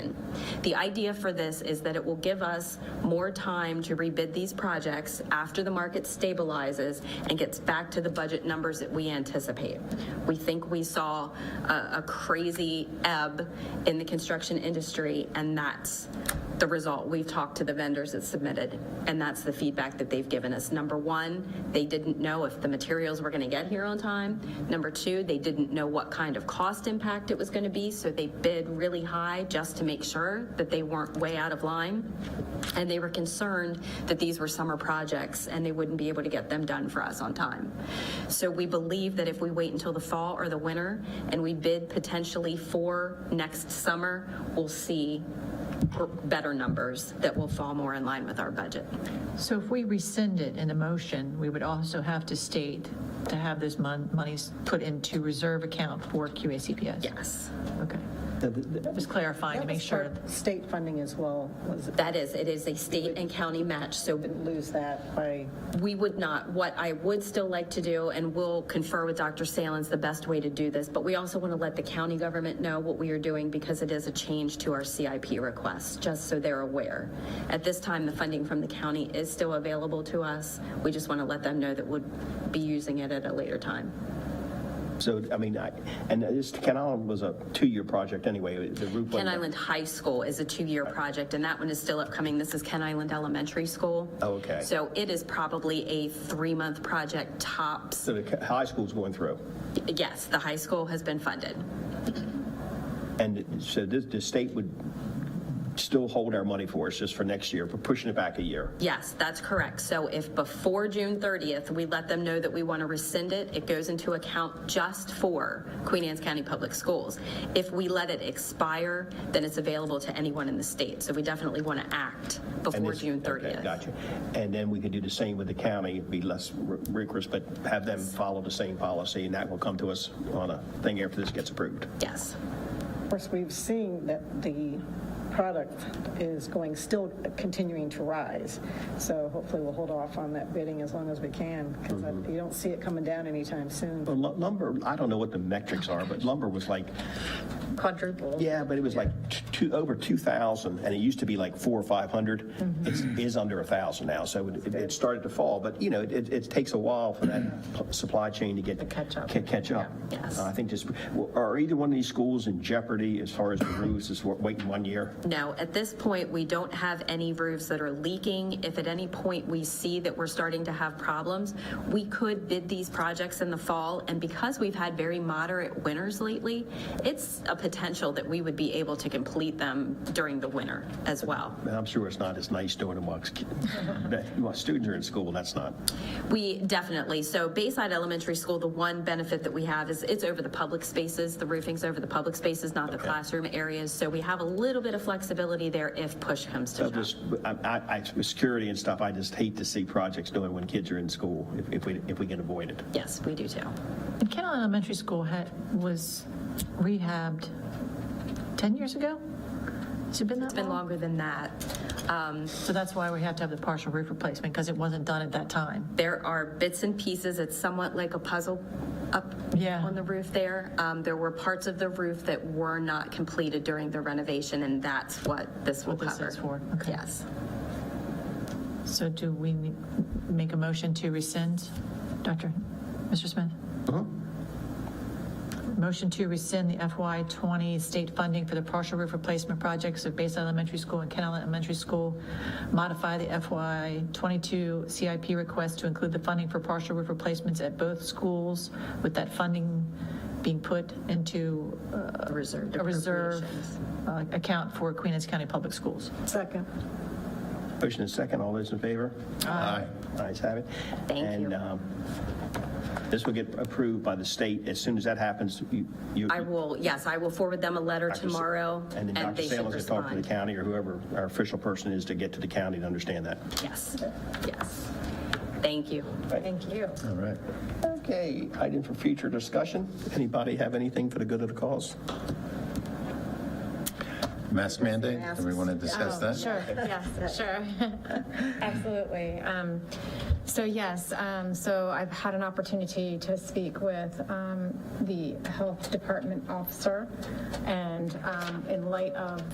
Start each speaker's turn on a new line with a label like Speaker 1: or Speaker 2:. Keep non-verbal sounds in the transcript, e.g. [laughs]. Speaker 1: The idea for this is that it will give us more time to rebid these projects after the market stabilizes and gets back to the budget numbers that we anticipate. We think we saw a, a crazy ebb in the construction industry, and that's the result. We've talked to the vendors that submitted, and that's the feedback that they've given us. Number one, they didn't know if the materials were going to get here on time. Number two, they didn't know what kind of cost impact it was going to be, so they bid really high just to make sure that they weren't way out of line. And they were concerned that these were summer projects and they wouldn't be able to get them done for us on time. So we believe that if we wait until the fall or the winter and we bid potentially for next summer, we'll see better numbers that will fall more in line with our budget.
Speaker 2: So if we rescind it in a motion, we would also have to state to have those mon- monies put into reserve account for QACPS?
Speaker 1: Yes.
Speaker 2: Okay. Just clarifying to
Speaker 3: That
Speaker 2: make
Speaker 3: was
Speaker 2: sure.
Speaker 3: part- State funding as well, was it,
Speaker 1: That is, it is a state and county match, so
Speaker 3: lose that by,
Speaker 1: we would not, what I would still like to do, and we'll confer with Dr. Salins the best way to do this, but we also want to let the county government know what we are doing because it is a change to our CIP request, just so they're aware. At this time, the funding from the county is still available to us. We just want to let them know that we'll be using it at a later time.
Speaker 4: So, I mean, I, and this, Ken Island was a two-year project anyway, the roof.
Speaker 1: Ken Island High School is a two-year project, and that one is still upcoming. This is Ken Island Elementary School.
Speaker 4: Oh, okay.
Speaker 1: So it is probably a three-month project tops.
Speaker 4: So the high school's going through.
Speaker 1: Yes, the high school has been funded.
Speaker 4: And so this, the state would still hold our money for us just for next year, but pushing it back a year.
Speaker 1: Yes, that's correct. So if before June 30th, we let them know that we want to rescind it, it goes into account just for Queen Anne's County Public Schools. If we let it expire, then it's available to anyone in the state. So we definitely want to act
Speaker 4: And
Speaker 1: before
Speaker 4: this-
Speaker 1: June
Speaker 4: okay,
Speaker 1: 30th.
Speaker 4: Gotcha. And then we could do the same with the county, be less r- rigorous, but have them follow the same policy, and that will come to us on a thing after this gets approved.
Speaker 1: Yes.
Speaker 3: of course, we've seen that the product is going, still continuing to rise. So hopefully we'll hold off on that bidding as long as we can, because you don't see it coming down anytime soon.
Speaker 4: But lu- Lumber, I don't know what the metrics are, but lumber was like,
Speaker 2: Quadruple.
Speaker 4: yeah, but it was like t- two, over 2,000, and it used to be like four or 500. It is under 1,000 now, so it- it it started to fall, but, you know, it, it takes a while for that p- supply chain to get.
Speaker 2: catch up.
Speaker 4: ca- Catch up.
Speaker 1: Yeah. Yes.
Speaker 4: Uh, I think this, are either one of these schools in jeopardy as far as the roofs, is wa- waiting one year?
Speaker 1: No, at this point, we don't have any roofs that are leaking. If at any point we see that we're starting to have problems, we could bid these projects in the fall. And because we've had very moderate winters lately, it's a potential that we would be able to complete them during the winter as well.
Speaker 4: And I'm sure it's not as nice doing it amongst, kid- that- well, students are in school, that's not.
Speaker 1: We definitely, so Bayside Elementary School, the one benefit that we have is it's over the public spaces. The roofing's over the public spaces, not the classroom areas. So we have a little bit of flexibility there if push comes to
Speaker 4: So
Speaker 1: shove.
Speaker 4: just, I, I, I- with security and stuff, I just hate to see projects doing when kids are in school, if, if we, if we can avoid it.
Speaker 1: Yes, we do too.
Speaker 2: And Kent Island Elementary School had, was rehabbed 10 years ago? Has it been that long?
Speaker 1: It's been longer than that. Um,
Speaker 2: So that's why we have to have the partial roof replacement, because it wasn't done at that time.
Speaker 1: There are bits and pieces, it's somewhat like a puzzle up
Speaker 2: Yeah.
Speaker 1: on the roof there. Um, There were parts of the roof that were not completed during the renovation, and that's what this will
Speaker 2: What this
Speaker 1: cover.
Speaker 2: is for, okay.
Speaker 1: Yes.
Speaker 2: So do we ne- make a motion to rescind, Dr., Mr. Smith? Motion to rescind the FY '20 state funding for the partial roof replacement projects of Bayside Elementary School and Kent Island Elementary School. Modify the FY '22 CIP request to include the funding for partial roof replacements at both schools, with that funding being put into uh,
Speaker 1: Reserved
Speaker 2: a reserve
Speaker 1: appropriations.
Speaker 2: uh, account for Queen Anne's County Public Schools.
Speaker 3: Second.
Speaker 4: Motion and second, all those in favor? Aye. Ayes have it.
Speaker 1: Thank
Speaker 4: And,
Speaker 1: you.
Speaker 4: um, this will get approved by the state, as soon as that happens, you. you-
Speaker 1: I will, yes, I will forward them a letter
Speaker 4: Dr. Sa-
Speaker 1: tomorrow,
Speaker 4: And
Speaker 1: and
Speaker 4: then Dr.
Speaker 1: they should
Speaker 4: Salins will talk to the
Speaker 1: respond.
Speaker 4: county, or whoever our official person is, to get to the county to understand that.
Speaker 1: Yes, yes. Thank you.
Speaker 2: Thank you.
Speaker 4: All right. Okay, item for future discussion. Anybody have anything for the good of the cause?
Speaker 5: Mask mandate, do we want to discuss that?
Speaker 6: Sure, yes, sure. [laughs] Absolutely. Um, So yes, um, so I've had an opportunity to speak with um, the health department officer, and um, in light of